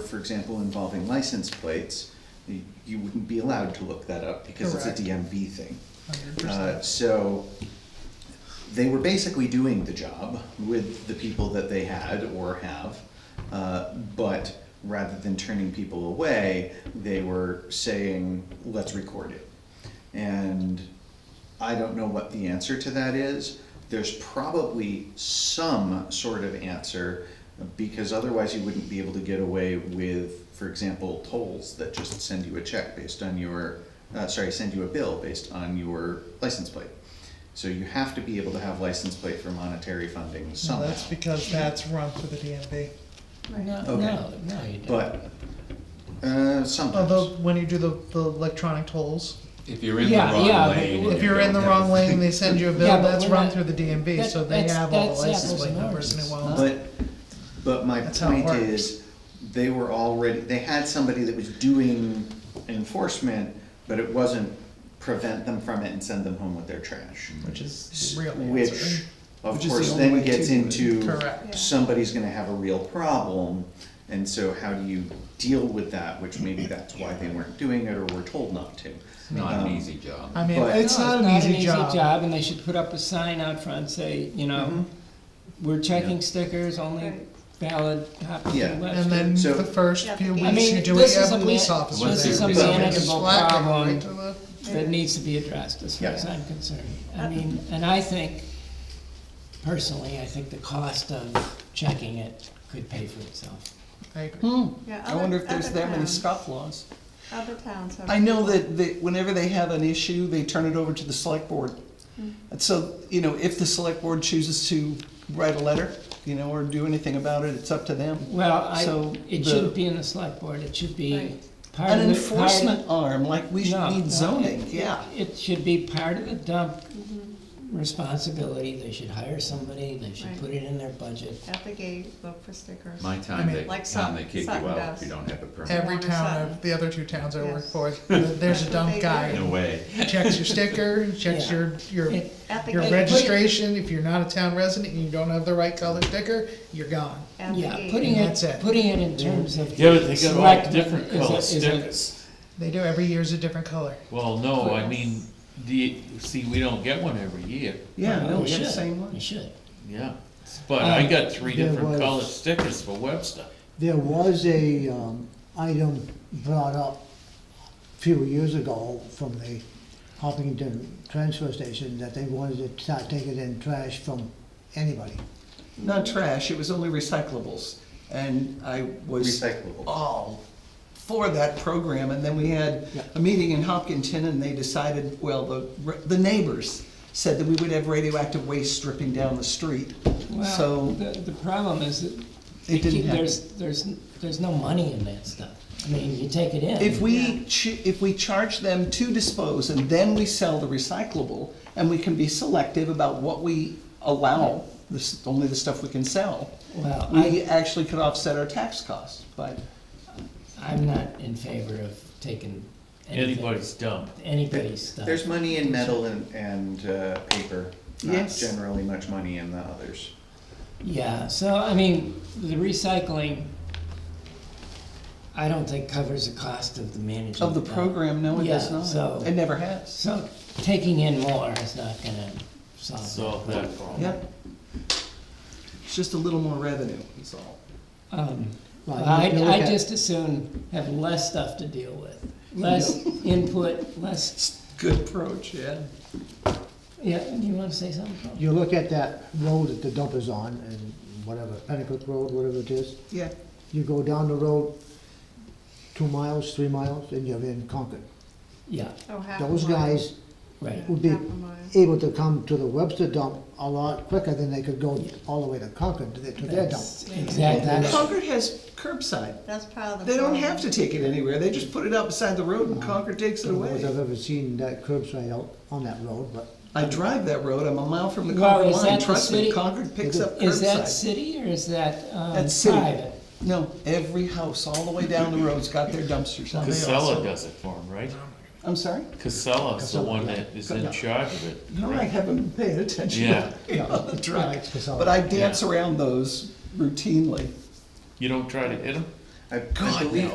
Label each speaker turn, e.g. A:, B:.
A: for example, involving license plates, y- you wouldn't be allowed to look that up because it's a
B: Correct.
A: DMV thing.
B: Hundred
A: Uh,
B: percent.
A: so they were basically doing the job with the people that they had or have, uh, but rather than turning people away, they were saying, let's record it. And I don't know what the answer to that is. There's probably some sort of answer because otherwise you wouldn't be able to get away with, for example, tolls that just send you a check based on your, uh, sorry, send you a bill based on your license plate. So you have to be able to have license plate for monetary funding
B: No,
A: somehow.
B: that's because that's run through the DMV.
C: No,
A: Okay.
C: no, no, you don't.
A: But, uh, sometimes.
B: Although, when you do the, the electronic tolls,
D: If you're in the
C: Yeah,
D: wrong
C: yeah,
D: lane.
C: but
B: if you're in the wrong lane, they send you a bill,
C: Yeah, but
B: that's
C: we're
B: run
C: not-
B: through the DMV,
C: that-
B: so they
C: that's-
B: have all the
C: that's
B: license
C: apples
B: plate
C: and
B: numbers and it
C: oranges.
B: won't.
A: But, but my
B: That's how it
A: point
B: works.
A: is, they were already, they had somebody that was doing enforcement, but it wasn't prevent them from it and send them home with their trash.
B: Which is
A: S-
B: the real
A: Which,
B: answer.
A: of
E: Which is the
A: course,
E: only
A: then
E: way to
A: gets
E: do it.
A: into,
B: Correct.
A: somebody's gonna have a real problem, and so how do you deal with that? Which maybe that's why they weren't doing it or were told not to.
D: It's not
A: Um,
D: an easy job.
B: I mean,
A: But-
B: it's
C: No,
B: not an easy job.
C: and they should put up a sign out front, say, you know, we're checking stickers, only
F: Right.
C: valid copies
A: Yeah.
C: and
B: And
C: Webster.
B: then
A: So-
B: the first
F: Yeah,
B: few
F: I
B: weeks,
C: mean,
B: you do
C: this
B: it, you
C: is
B: have
C: a
B: police
C: man-
B: officer there.
D: this is a
B: He's fucking
C: manageable
B: slacking
C: problem.
B: right to the-
C: That needs to be addressed, as far as
A: Yeah.
C: I'm concerned.
F: Uh,
C: I mean, and I think, personally, I think the cost of checking it could pay for itself.
B: I agree.
F: Yeah,
E: I wonder
F: other-
E: if there's
F: other
E: that many
F: towns-
E: scoff laws.
F: Other towns have.
E: I know that, that whenever they have an issue, they turn it over to the select board. And so, you know, if the select board chooses to write a letter, you know, or do anything about it, it's up to them.
C: Well, I,
E: So
C: it
E: the-
C: shouldn't be in the select board, it should be
F: Right.
C: part of
E: An
C: the. part-
E: enforcement arm, like we should
C: No, no,
E: need
C: it-
E: zoning, yeah.
C: It should be part of the dump responsibility, they should hire somebody, they should
F: Right.
C: put it in their budget.
F: At the gate, look for stickers.
D: My
B: I
D: time,
B: mean,
D: they,
F: like
D: time they
F: Sutton-
D: kick you
F: Sutton
D: out
F: does.
D: if you don't have a permit.
B: Every
F: Warner
B: town
F: Sutton.
B: of, the other two towns I work
F: Yes.
B: for, there's a dump
D: No
B: guy.
D: way.
B: Checks your sticker, checks
C: Yeah.
B: your, your,
C: It-
F: At the
B: your
F: gate.
B: registration, if you're not a town resident and you don't have the right color sticker, you're gone.
F: At the
C: Yeah,
F: gate.
C: putting
B: That's
C: it,
B: it.
C: putting it in terms of.
G: Yeah, but they got all
C: select-
G: different
C: is a-
G: colored
C: is a-
G: stickers.
B: They do, every year's a different color.
G: Well, no, I mean, do you, see, we don't get one every year,
E: Yeah,
C: Well,
E: no,
C: we
E: we have the
C: Oh, should.
E: same
C: You
E: one.
C: should.
G: yeah. But I got three
H: There
G: different
H: was-
G: colored stickers for Webster.
H: There was a, um, item brought up a few years ago from the Hopkinton transfer station that they wanted to start taking in trash from anybody.
E: Not trash, it was only recyclables. And I was
A: Recyclable.
E: all for that program, and then we had a meeting in Hopkinton, and they decided, well, the, the neighbors said that we would have radioactive waste dripping down the street,
C: Well,
E: so
C: the, the problem is that.
E: it didn't happen.
C: There's, there's, there's no money in that stuff. I mean, you take it in.
E: If we, ch- if we charge them to dispose, and then we sell the recyclable, and we can be selective about what we allow, this, only the stuff we can sell,
C: Well, I,
E: we actually could offset our tax costs, but
C: I'm not in favor of taking. anything-
G: Anybody's dump.
C: Anybody's stuff.
A: There's money in metal and, and, uh, paper, not
E: Yes.
A: generally much money in the others.
C: Yeah, so, I mean, the recycling, I don't think covers the cost of the management.
E: of the
C: of that.
E: program, no, it does
C: Yeah, so-
E: not. It never has.
C: So taking in more is not gonna solve.
G: Solve that problem.
E: Yep. It's just a little more revenue, is all.
C: Um,
H: Well, you
C: I,
H: can look
C: I
H: at-
C: just assume have less stuff to deal with, less input, less,
E: Good approach, yeah.
C: yeah, you wanna say something? Paul?
H: You look at that road that the dump is on and whatever, Pennacook Road, whatever it is,
E: Yeah,
H: you go down the road two miles, three miles, and you're in Concord.
C: Yeah,
F: Oh, half a
H: Those
F: mile.
H: guys
C: right.
H: would be
F: Half a mile.
H: able to come to the Webster dump a lot quicker than they could go all the way to Concord to their, to their dump.
C: That's Exactly. right.
E: Concord has curbside.
F: That's part of the.
E: They don't
F: problem.
E: have to take it anywhere. They just put it out beside the road
C: Uh-huh.
E: and Concord takes it
H: I don't know if
E: away.
H: I've ever seen that curbside out on that road, but
E: I drive that road. I'm a mile from the
C: Well,
E: Concord
C: is that
E: line.
C: the
E: Trust
C: city?
E: me, Concord picks up
C: Is that
E: curbside.
C: city or is that, um,
E: That's city.
C: private?
E: No, every house all the way down the road's got their dumpsters out.
G: Casella does it for him, right?
E: I'm sorry?
G: Casella's the
H: Casella,
G: one
H: yeah.
G: that is in charge of it.
E: No, I haven't been paying attention.
G: Yeah.
E: On the
H: Yeah,
E: truck.
H: it's Casella.
E: But I dance
G: Yeah.
E: around those routinely.
G: You don't try to hit him?
A: I, I
E: God,
A: believe